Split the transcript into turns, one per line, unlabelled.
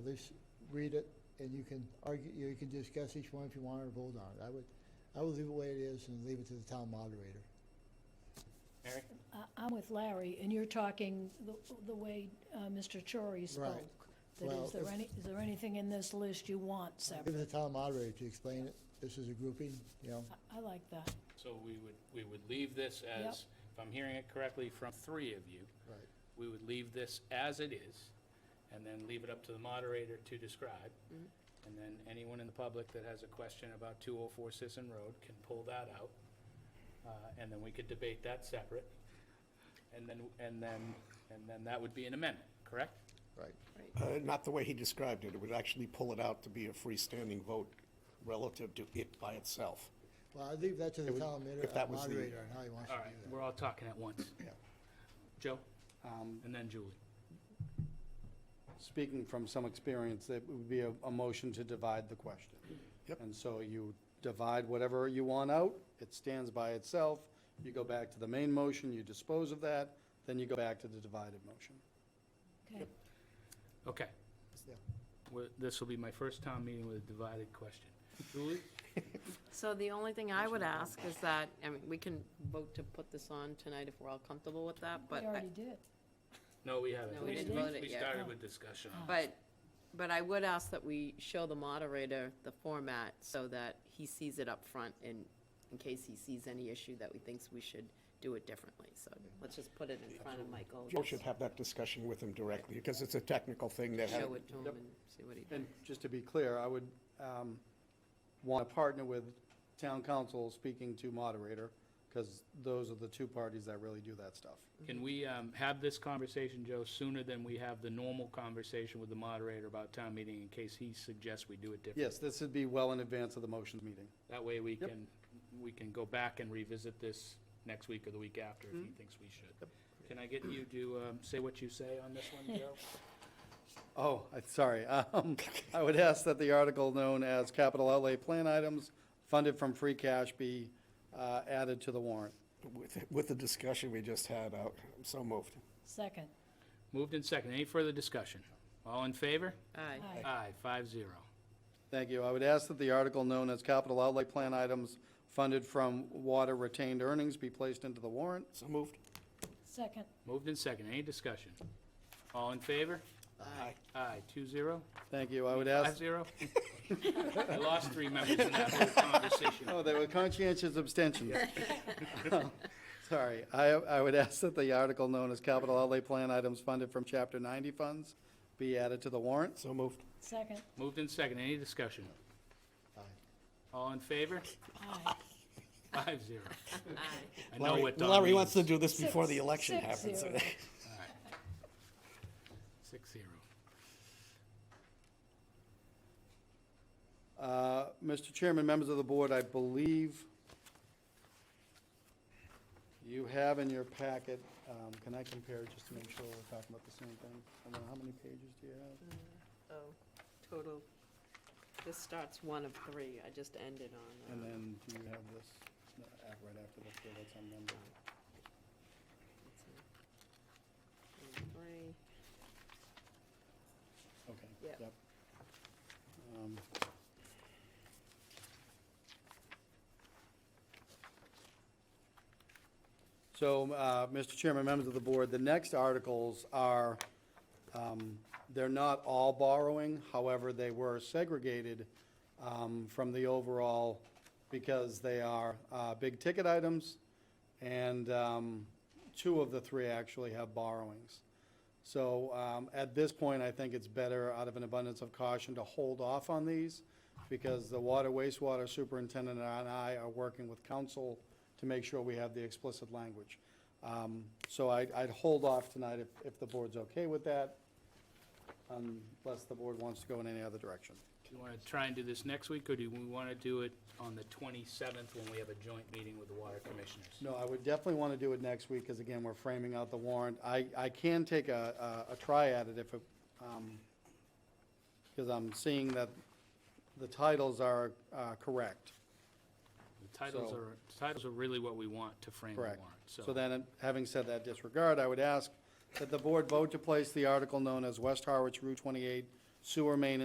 this, read it, and you can argue, you can discuss each one if you want or vote on it. I would, I would leave it the way it is and leave it to the town moderator.
Mary?
I- I'm with Larry, and you're talking the the way uh, Mr. Chori
Right.
spoke. That
Well,
is there
if-
any, is there anything in this list you want
Give
separate?
the town moderator to explain it. This is a grouping, you know.
I- I like that.
So we would, we would leave this as, if I'm hearing it correctly from three of you,
Right.
we would leave this as it is, and then leave it up to the moderator to describe. And then anyone in the public that has a question about 204 Sisson Road can pull that out, uh, and then we could debate that separate. And then, and then, and then that would be an amendment, correct?
Right.
Uh, Not the way he described it. It would actually pull it out to be a freestanding vote relative to it by itself.
Well, I'd leave that to the
would-
town moder-
if that was the-
moderator on how he wants to
All
do
right,
that.
we're all talking at once.
Yeah.
Joe, um, and then Julie.
speaking from some experience, that would be a, a motion to divide the question.
Yep.
And so you divide whatever you want out, it stands by itself, you go back to the main motion, you dispose of that, then you go back to the divided motion.
Okay.
Okay.
Yeah.
Well, This will be my first town meeting with a divided question. Julie?
So the only thing I would ask is that, I mean, we can vote to put this on tonight if we're all comfortable with that, but,
We
I-
already did.
No, we haven't.
No, we didn't vote it
We
yet. Oh.
started with discussion.
but, but I would ask that we show the moderator the format so that he sees it up front in, in case he sees any issue that we thinks we should do it differently. So let's just put it in front of Michael.
Joe should have that discussion with him directly, because it's a technical thing that,
Show
had-
it to him and see what he
And
thinks.
just to be clear, I would um, want to partner with town council speaking to moderator, because those are the two parties that really do that stuff.
Can we um, have this conversation, Joe, sooner than we have the normal conversation with the moderator about town meeting in case he suggests we do it differently?
Yes, this would be well in advance of the motions meeting.
That way we
Yep.
can, we can go back and revisit this next week or the week after if he thinks we should. Can I get you to um, say what you say on this one, Joe?
Oh, I- sorry. Um, I would ask that the article known as capital outlay plan items funded from free cash be uh, added to the warrant.
with, with the discussion we just had, uh, I'm so moved.
Second.
Moved and second. Any further discussion? All in favor?
Aye.
Aye.
Aye, five zero.
Thank you. I would ask that the article known as capital outlay plan items funded from water retained earnings be placed into the warrant.
So moved?
Second.
Moved and second. Any discussion? All in favor?
Aye.
Aye, two zero.
Thank you. I would
Five
ask,
zero? I lost three members in that whole conversation.
oh, they were conscientious abstentions. Oh, Sorry. I, I would ask that the article known as capital outlay plan items funded from chapter 90 funds be added to the warrant.
So moved?
Second.
Moved in second, any discussion?
Aye.
All in favor?
Aye.
Five zero.
Aye.
I know
Larry
what Don
Larry wants to
means.
do this before the
Six-
election
six
happens.
zero.
Six zero.
Uh, Mr. Chairman, members of the board, I believe you have in your packet, um, can I compare just to make sure we're talking about the same thing? I don't know, how many pages do you have?
So, total, this starts one of three. I just ended on.
And
uh,
then do you have this no, ah, right after this, so that's on number?
let's see, one of Three.
Okay.
Yep.
Um, So, uh, Mr. Chairman, members of the board, the next articles are, um, they're not all borrowing, however, they were segregated um, from the overall because they are uh, big-ticket items, and um, two of the three actually have borrowings. So um, at this point, I think it's better, out of an abundance of caution, to hold off on these because the water wastewater superintendent and I are working with council to make sure we have the explicit language. Um, So I'd, I'd hold off tonight if, if the board's okay with that, unless the board wants to go in any other direction.
Do you want to try and do this next week, or do we want to do it on the twenty-seventh when we have a joint meeting with the water commissioners?
No, I would definitely want to do it next week, because again, we're framing out the warrant. I, I can take a, a a try at it if, it, um, because I'm seeing that the titles are uh, correct,
The titles
So-
are, titles are really what we want to frame the warrant,
correct.
so.
So then, having said that disregard, I would ask that the board vote to place the article known as West Harwich Route 28 sewer main